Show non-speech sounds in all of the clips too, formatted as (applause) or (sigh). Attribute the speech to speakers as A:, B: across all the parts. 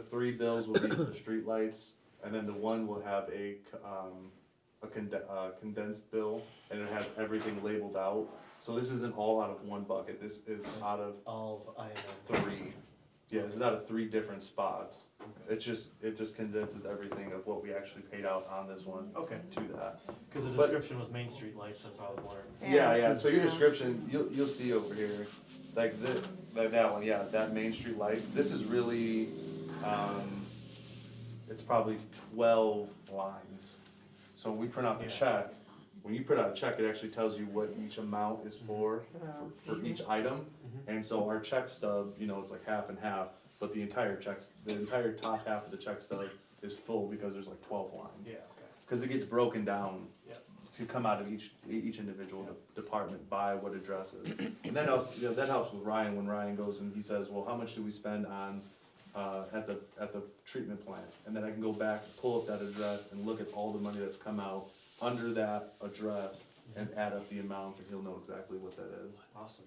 A: The three bills will be for the streetlights, and then the one will have a, c- um, a conde- uh, condensed bill, and it has everything labeled out. So this isn't all out of one bucket, this is out of
B: All of IMM.
A: three, yeah, this is out of three different spots. It's just, it just condenses everything of what we actually paid out on this one
B: Okay,
A: to that.
B: because the
A: But-
B: description was Main Street lights, that's why I was wondering.
A: Yeah, yeah, so your
C: Yeah.
A: description, you'll, you'll see over here, like the, like that one, yeah, that Main Street lights, this is really, um, it's probably twelve lines. So when we print out the
B: Yeah.
A: check, when you print out a check, it actually tells you what each amount
B: Mm-hmm.
A: is for, for, for each item. And so our check stub, you know, it's like half and half, but the entire checks, the entire top half of the check stub is full because there's like twelve lines.
B: Yeah, okay,
A: Cause it gets broken down
B: yeah.
A: to come out of each, each individual de- department by what addresses. And that helps, you know, that helps with Ryan, when Ryan goes and he says, well, how much do we spend on, uh, at the, at the treatment plant? And then I can go back, pull up that address and look at all the money that's come out under that address and add up the amounts and he'll know exactly what that is.
B: Awesome.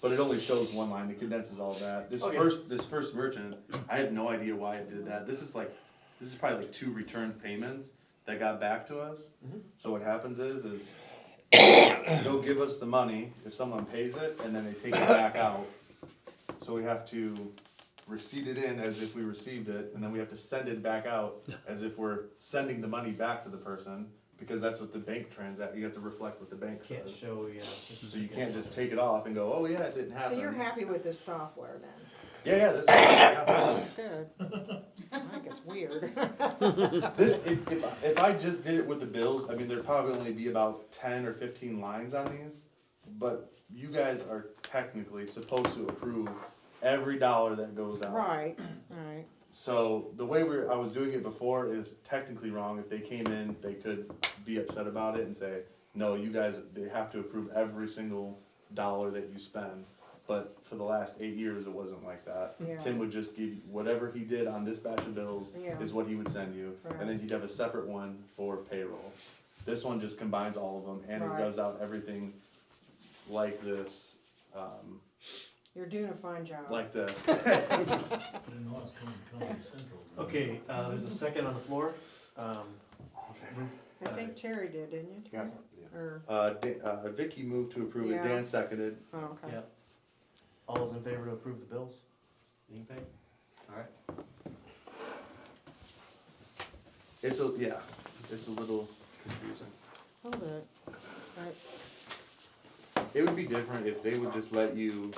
A: But it only shows one line, it condenses all that. This
B: Okay.
A: first, this first merchant, I have no idea why it did that. This is like, this is probably like two return payments that got back to us. So what happens is, is (coughs) they'll give us the money if someone pays it, and then they take it back out. So we have to receipt it in as if we received it, and then we have to send it back out as if we're sending the money back to the person, because that's what the bank transact, you have to reflect what the bank
B: Can't
A: says.
B: show, yeah.
A: So you can't just take it off and go, oh yeah, it didn't
C: So
A: happen.
C: you're happy with this software then?
A: Yeah, yeah, this,
C: (coughs)
A: yeah.
C: That's good. (laughs) I think it's weird.
A: this if, if, I- if I just did it with the bills, I mean, there'd probably only be about ten or fifteen lines on these. But you guys are technically supposed to approve every dollar that goes out.
C: (laughs) Right, right.
A: So the way we I was doing it before is technically wrong. If they came in, they could be upset about it and say, no, you guys, they have to approve every single dollar that you spend. But for the last eight years, it wasn't like that.
C: Yeah.
A: Tim would just give, whatever he did on this batch of bills
C: Yeah.
A: is what he would send you. And then
C: Right.
A: he'd have a separate one for payroll. This one just combines all of them and it
C: Right.
A: does out everything like this, um,
C: You're doing a fine job.
A: like
C: (laughs)
A: this.
D: Didn't know it was coming,
E: (laughs)
D: coming central.
B: Okay, uh, there's a second on the floor. Um,
C: I think Terry did, didn't you? Terry? Or,
A: Uh, Da- uh, Vicky moved to approve it,
C: Yeah.
A: Dan seconded.
C: oh, okay.
B: yeah. All those in favor to approve the bills? You can pay? All right.
A: It's a, yeah, it's a little confusing.
C: Hold it. Right.
A: It would be different if they would just let you,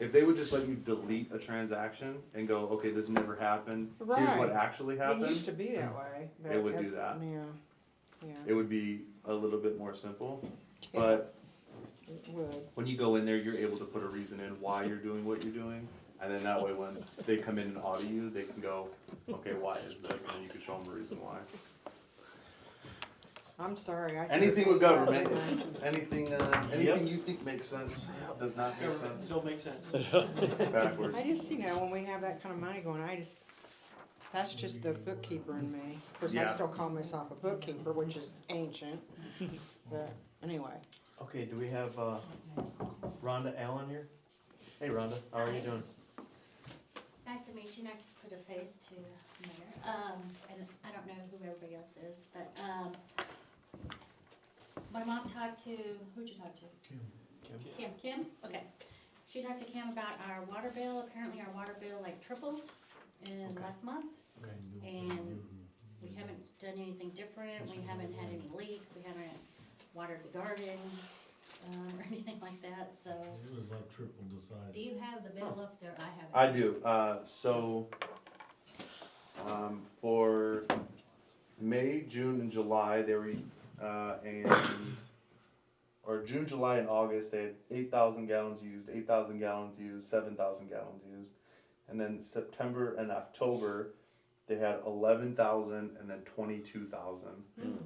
A: if they would just let you delete a transaction and go, okay, this never happened, here's
C: Right.
A: what actually
C: It used
A: happened.
C: to be that way. but
A: It would do that.
C: Yeah, yeah.
A: It would be a little bit more simple,
C: Yeah,
A: but
C: It would.
A: when you go in there, you're able to put a reason in why you're doing what you're doing. And then that way, when they come in and audit you, they can go, okay, why is this? And then you can show them a reason why.
C: I'm sorry. I should've
A: Anything with
C: thought of
A: government,
C: that.
A: anything, uh, anything you think makes sense, does not make
B: Government (laughs)
A: sense
B: Still makes sense.
A: backwards.
C: (laughs) I just, you know, when we have that kind of money going, I just, that's just the bookkeeper in me. Of course, I
A: Yeah.
C: still call myself a bookkeeper, which is ancient, but anyway.
B: Okay, do we have, uh, Rhonda Allen here? Hey Rhonda, how are you doing?
E: Nice to meet you, and I just put a face to Mayor, um, and I don't know who everybody else is, but, um, my mom talked to, who'd you talk to? Kim, Kim, okay. She talked to Kim about our water bill, apparently our water bill like tripled in
B: Okay.
E: last month.
B: Okay.
E: And we
D: Mm-hmm.
E: haven't done anything different, we haven't had any leaks, we haven't watered the garden, um, (laughs) or anything like that, so.
D: It was like triple the size.
E: Do you have the bill up there? I have it.
A: I do, uh, so, um, for May, June, and July, they were, uh, and, or June, July, and August, they had eight thousand gallons used, eight thousand gallons used, seven thousand gallons used. And then September and October, they had eleven thousand and then twenty-two thousand.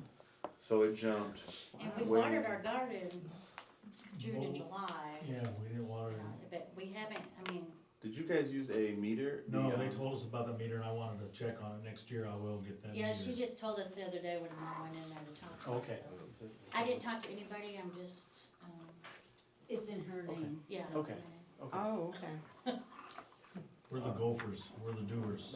A: So it jumped.
E: And we
A: way-
E: watered our garden June and July,
D: Yeah, we didn't
E: uh,
D: want to,
E: but we haven't, I mean,
A: Did you guys use a meter?
D: no,
A: The,
D: they
A: um,
D: told us about the meter and I wanted to check on it, next year I will get that meter.
E: yeah, she just told us the other day when I went in there to talk. to her,
B: Oh, Okay.
E: so. I didn't talk to anybody, I'm just, um,
F: It's in her name.
E: yeah.
B: Okay.
E: that's
B: Okay.
C: Oh, okay.
D: We're the gophers, we're the doers.